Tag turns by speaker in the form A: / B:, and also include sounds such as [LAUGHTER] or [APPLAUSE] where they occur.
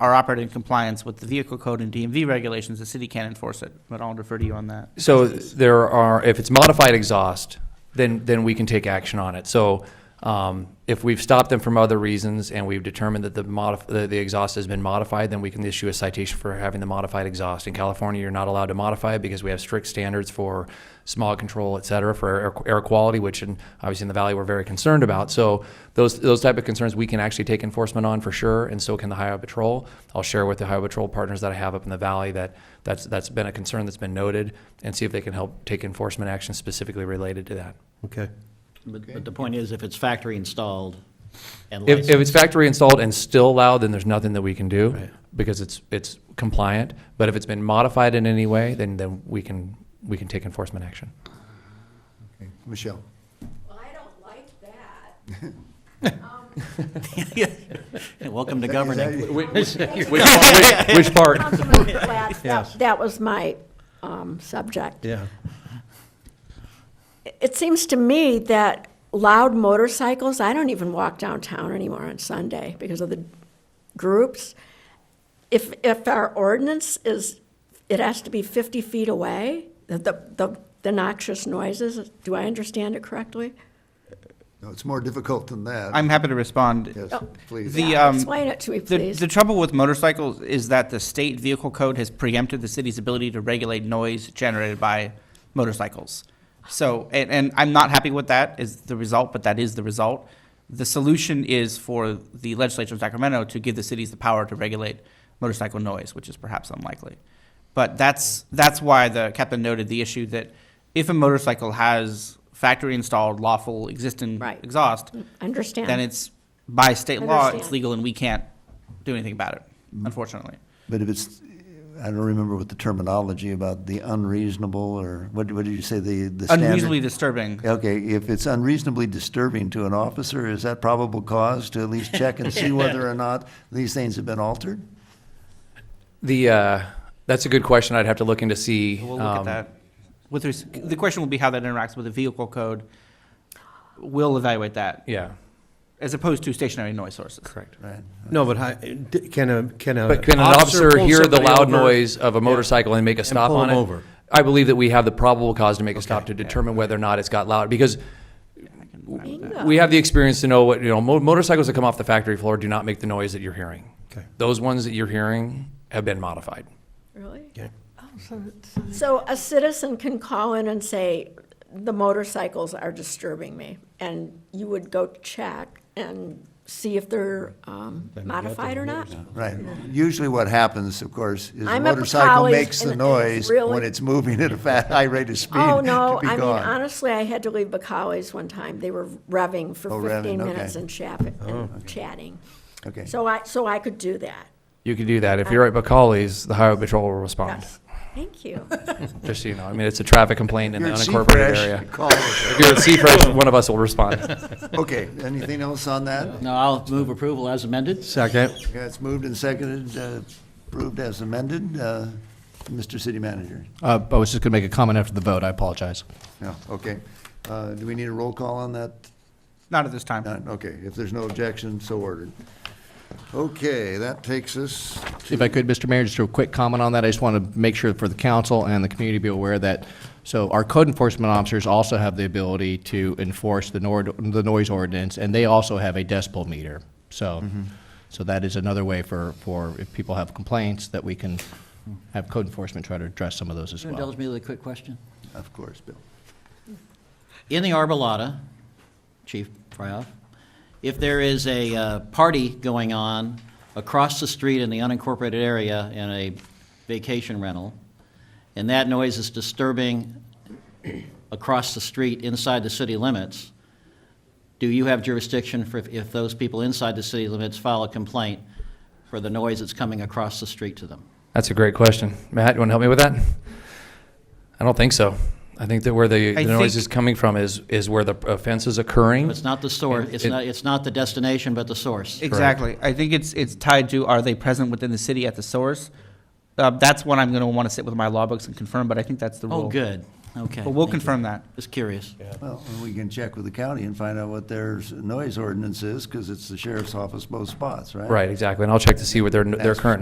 A: are operating in compliance with the vehicle code and DMV regulations, the city can enforce it, but I'll defer to you on that.
B: So there are, if it's modified exhaust, then, then we can take action on it. So um, if we've stopped them from other reasons and we've determined that the modif, the, the exhaust has been modified, then we can issue a citation for having the modified exhaust. In California, you're not allowed to modify it because we have strict standards for smog control, et cetera, for air, air quality, which in, obviously in the valley we're very concerned about. So those, those type of concerns we can actually take enforcement on for sure, and so can the Highway Patrol. I'll share with the Highway Patrol partners that I have up in the valley that that's, that's been a concern that's been noted, and see if they can help take enforcement action specifically related to that.
C: Okay.
D: But, but the point is, if it's factory installed and
B: If,
D: licensed.
B: if it's factory installed and still loud, then there's nothing that we can do
C: Right.
B: because it's, it's compliant. But if it's been modified in any way, then, then we can, we can take enforcement action.
C: Okay. Michelle?
E: Well, I don't like that.
B: [LAUGHS]
D: Welcome to
C: Is that-
D: governing.
B: Which part?
E: Councilman Platt,
C: Yes.
E: that- that was my um, subject.
C: Yeah.
E: It seems to me that loud motorcycles, I don't even walk downtown anymore on Sunday because of the groups. If, if our ordinance is, it has to be 50 feet away, the- the, the the noxious noises, do I understand it correctly?
C: No, it's more difficult than that.
A: I'm happy to respond.
C: Yes,
E: Oh.
C: please.
A: The,
E: Yeah,
A: um,
E: Explain it to me,
A: The,
E: please.
A: the trouble with motorcycles is that the state vehicle code has preempted the city's ability to regulate noise generated by motorcycles. So, and, and I'm not happy with that is the result, but that is the result. The solution is for the legislature of Sacramento to give the cities the power to regulate motorcycle noise, which is perhaps unlikely. But that's, that's why the captain noted the issue that if a motorcycle has factory installed lawful existing
E: Right. Mm.
A: exhaust,
E: Understand.
A: then it's by state law, it's
E: Understand.
A: legal, and we can't do anything about it, unfortunately.
C: But if it's, I don't remember what the terminology about the unreasonable or, what, what did you say, the, the standard?
A: Unreasonably disturbing.
C: Okay, if it's unreasonably disturbing to an officer, is that probable cause to at least check and see whether or not these things have been altered?
B: The, uh, that's a good question. I'd have to look into see.
A: We'll look
B: um,
A: at that. With, res- the question will be how that interacts with the vehicle code. We'll evaluate that,
B: Yeah,
A: as opposed to stationary noise sources.
B: correct.
C: Right.
F: No, but hi- d- can a, can a.
B: But can an officer
F: pull
B: hear the
F: somebody
B: loud
F: over?
B: noise of a motorcycle and make a stop
F: pull
B: on
F: them
B: it?
F: over.
B: I believe that we have the probable cause to make a stop to determine whether or not it's got loud, because
E: Bingo.
B: we have the experience to know what, you know, mo- motorcycles that come off the factory floor do not make the noise that you're hearing.
F: Okay.
B: Those ones that you're hearing have been modified.
E: Really?
F: Okay.
E: So a citizen can call in and say, the motorcycles are disturbing me, and you would go check and see if they're um, modified or not?
C: Right. Usually what happens, of course, is the
E: I'm up at
C: motorcycle
E: college
C: makes the
E: and- and it's
C: noise
E: really-
C: when it's moving at a fat, high rate of speed [LAUGHS]
E: Oh,
C: to be
E: no, I mean,
C: gone.
E: honestly, I had to leave Bacalli's one time, they were revving for
C: Oh, revving,
E: fifteen
C: okay. Oh,
E: minutes and chaff- and chatting.
C: Okay.
E: So I, so I could do that,
B: You can do that. If you're at Bacalli's, the highway patrol will respond,
E: yes, thank you.
B: just so you know. I mean, it's a traffic complaint in the
C: You're at
B: unincorporated
C: Seafresh,
B: area.
C: call us.
B: If you're at Seafresh, one of us will
F: [LAUGHS]
B: respond.
C: Okay, anything else on that?
D: No, I'll move approval as amended.
F: Second.
C: Yeah, it's moved and seconded, uh, approved as amended. Uh, Mr. City Manager?
G: Uh, I was just going to make a comment after the vote. I apologize.
C: No, okay. Uh, Do we need a roll call on that?
A: Not at this time.
C: None, okay. If there's no objection, so ordered. Okay, that takes us
G: If I could, Mr. Mayor, just a quick comment on that. I just want to make sure for the council and the community to be aware that, so our code enforcement officers also have the ability to enforce the nor, the noise ordinance, and they also have a decibel meter. So, so that is another way for, for if people have complaints, that we can have code enforcement try to address some of those as
D: Can you indulge
G: well.
D: me with a quick question?
C: Of course, Bill.
D: In the Arbolata, Chief Fryoff, if there is a uh, party going on across the street in the unincorporated area in a vacation rental, and that noise is disturbing across the street inside the city limits, do you have jurisdiction for if- if those people inside the city limits file a complaint for the noise that's coming across the street to them?
B: That's a great question. Matt, you want to help me with that? I don't think so. I think that where the,
A: I
B: the noise
A: think-
B: is coming from is, is where the offense is occurring.
D: It's not the source, it's
B: It-
D: not, it's not the destination, but the source.
A: Exactly. I think it's, it's tied to, are they present within the city at the source? Uh, that's one I'm gonna wanna sit with my law books and confirm, but I think that's the rule.
D: Oh, good. Okay.
A: But we'll
D: thank you.
A: confirm that.
D: Just curious.
C: Well, and we can check with the county and find out what their s- noise ordinance is, because it's the sheriff's office both spots, right?
B: Right, exactly. And I'll check to see what their, their
C: That's-
B: current